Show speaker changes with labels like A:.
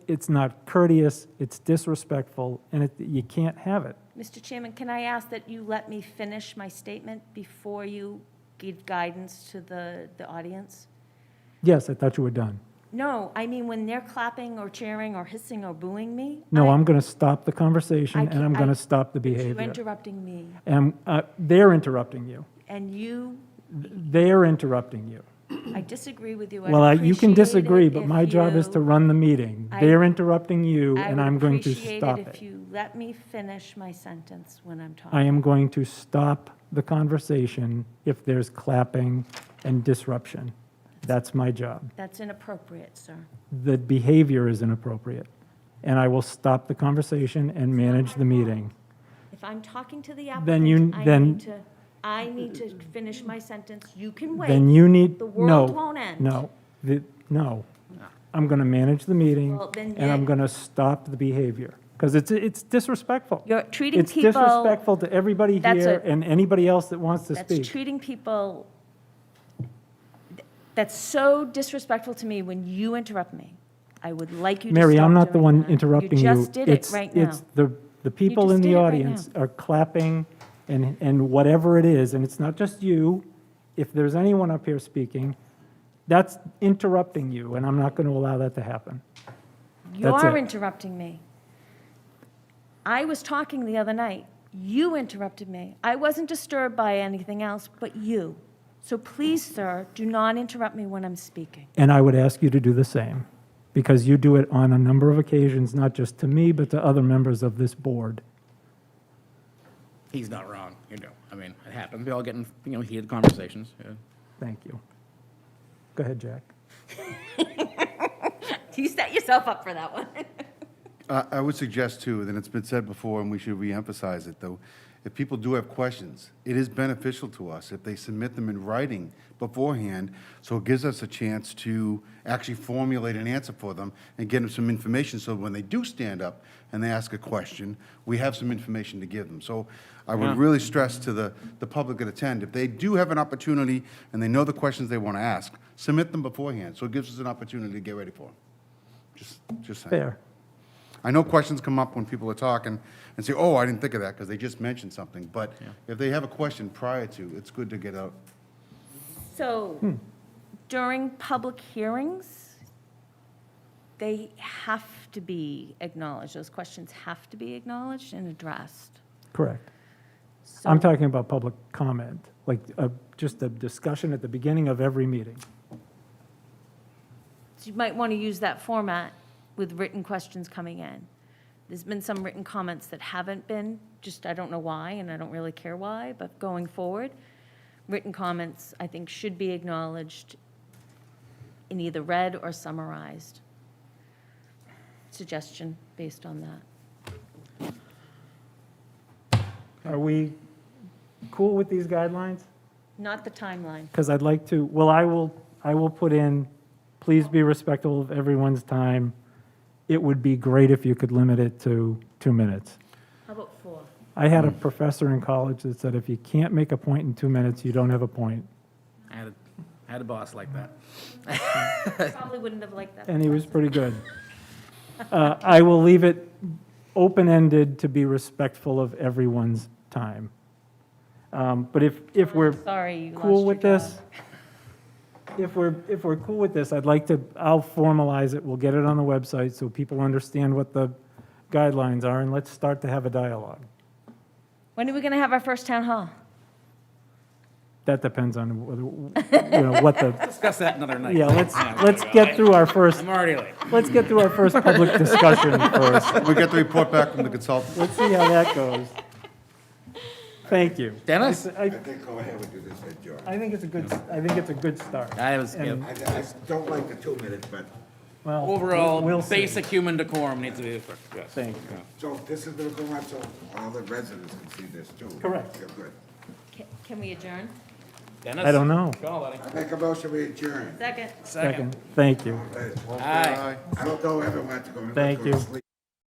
A: it's not courteous, it's disrespectful, and it, you can't have it.
B: Mr. Chairman, can I ask that you let me finish my statement before you give guidance to the, the audience?
A: Yes, I thought you were done.
B: No, I mean, when they're clapping or cheering or hissing or booing me.
A: No,
B: I-
A: I'm going to stop the conversation, and I'm
B: can't- I-
A: going to stop the
B: You're
A: behavior.
B: interrupting me,
A: And uh, they're interrupting you.
B: and you,
A: They're interrupting you.
B: I disagree with you. I'd
A: Well, I- you can
B: appreciate
A: disagree,
B: it
A: but
B: if
A: my job is
B: you-
A: to run the meeting.
B: I-
A: They're interrupting you,
B: I
A: and
B: would
A: I'm going to
B: appreciate
A: stop
B: If
A: it.
B: you let me finish my sentence when I'm
A: I
B: talking.
A: am going to stop the conversation if there's clapping and disruption. That's my job.
B: That's inappropriate, sir.
A: the behavior is inappropriate, and I will stop the conversation and manage the meeting.
B: If I'm talking to the
A: Then you-
B: applicant, I
A: then-
B: need to, I need to finish my sentence. You can
A: Then
B: wait.
A: you need,
B: The
A: no,
B: world won't end.
A: no, the- no. I'm going to manage the meeting,
B: Well, then
A: and I'm
B: yet-
A: going to stop the behavior, because it's, it's disrespectful.
B: You're treating
A: It's
B: people,
A: disrespectful to everybody
B: That's
A: here
B: a-
A: and anybody else that wants to
B: that's
A: speak.
B: treating people, that's so disrespectful to me when you interrupt me. I would like you to stop
A: Mary, I'm not the
B: doing
A: one
B: that.
A: interrupting you.
B: You just did it
A: It's-
B: right now.
A: It's the, the people
B: just
A: in
B: did
A: the
B: it right
A: audience are clapping and, and whatever it is, and it's not just you. If there's anyone up here speaking, that's interrupting you, and I'm not going to allow that to happen. That's
B: You're
A: it.
B: interrupting me. I was talking the other night. You interrupted me. I wasn't disturbed by anything else but you. So please, sir, do not interrupt me when I'm speaking.
A: And I would ask you to do the same, because you do it on a number of occasions, not just to me, but to other members of this board.
C: He's not wrong, you know. I mean, it happens. We all get in, you know, heated conversations. yeah.
A: Thank you. Go ahead, Jack.
B: You set yourself up for that one.
D: I I would suggest too, and it's been said before, and we should reemphasize it though, if people do have questions, it is beneficial to us if they submit them in writing beforehand, so it gives us a chance to actually formulate an answer for them and get them some information, so when they do stand up and they ask a question, we have some information to give them. So I would really stress to the, the public that attend, if they do have an opportunity and they know the questions they want to ask, submit them beforehand, so it gives us an opportunity to get ready for them. Just, just saying.
A: Fair.
D: I know questions come up when people are talking and say, oh, I didn't think of that because they just mentioned something. But if they have a question prior to, it's good to get out.
B: So during public hearings, they have to be acknowledged. Those questions have to be acknowledged and addressed.
A: Correct.
B: So-
A: I'm talking about public comment, like uh, just a discussion at the beginning of every meeting.
B: So you might want to use that format with written questions coming in. There's been some written comments that haven't been, just I don't know why, and I don't really care why, but going forward, written comments, I think, should be acknowledged in either read or summarized. Suggestion based on that.
A: Are we cool with these guidelines?
B: Not the timeline.
A: Because I'd like to, well, I will, I will put in, please be respectful of everyone's time. It would be great if you could limit it to two minutes.
B: How about four?
A: I had a professor in college that said, if you can't make a point in two minutes, you don't have a point.
C: I had, a, I had a boss like that.
B: Probably wouldn't have liked that.
A: and he was pretty good. Uh, I will leave it open-ended to be respectful of everyone's time. Um, But if, if we're
B: Sorry, you lost
A: cool
B: your
A: with
B: job.
A: this, if we're, if we're cool with this, I'd like to, I'll formalize it, we'll get it on the website so people understand what the guidelines are, and let's start to have a dialogue.
B: When are we going to have our first town hall?
A: That depends on whether, you know, what the,
C: Discuss that another night.
A: yeah, let's, let's get through our first,
C: I'm already late.
A: let's get through our first public discussion first.
D: We get the report back from the consultant.
A: Let's see how that goes. Thank you.
C: Dennis?
A: I,
E: I think go ahead and do this with George.
A: I think it's a good, I think it's a good start.
C: I was, yeah.
A: And,
E: I, I don't like the two minutes, but,
A: well,
C: Overall,
A: we'll see.
C: basic human decorum needs to be, yes.
A: Thank you.
E: so this is gonna go on, so all the residents can see this too.
A: Correct.
E: You're good.
B: Ca- Can we adjourn?
C: Dennis?
A: I don't know.
C: Call, buddy.
E: I make a motion, we adjourn.
B: Second.
C: Second.
A: Thank you.
E: I
C: Aye.
E: don't know everyone to go to
A: Thank
E: go
A: you.
E: to sleep.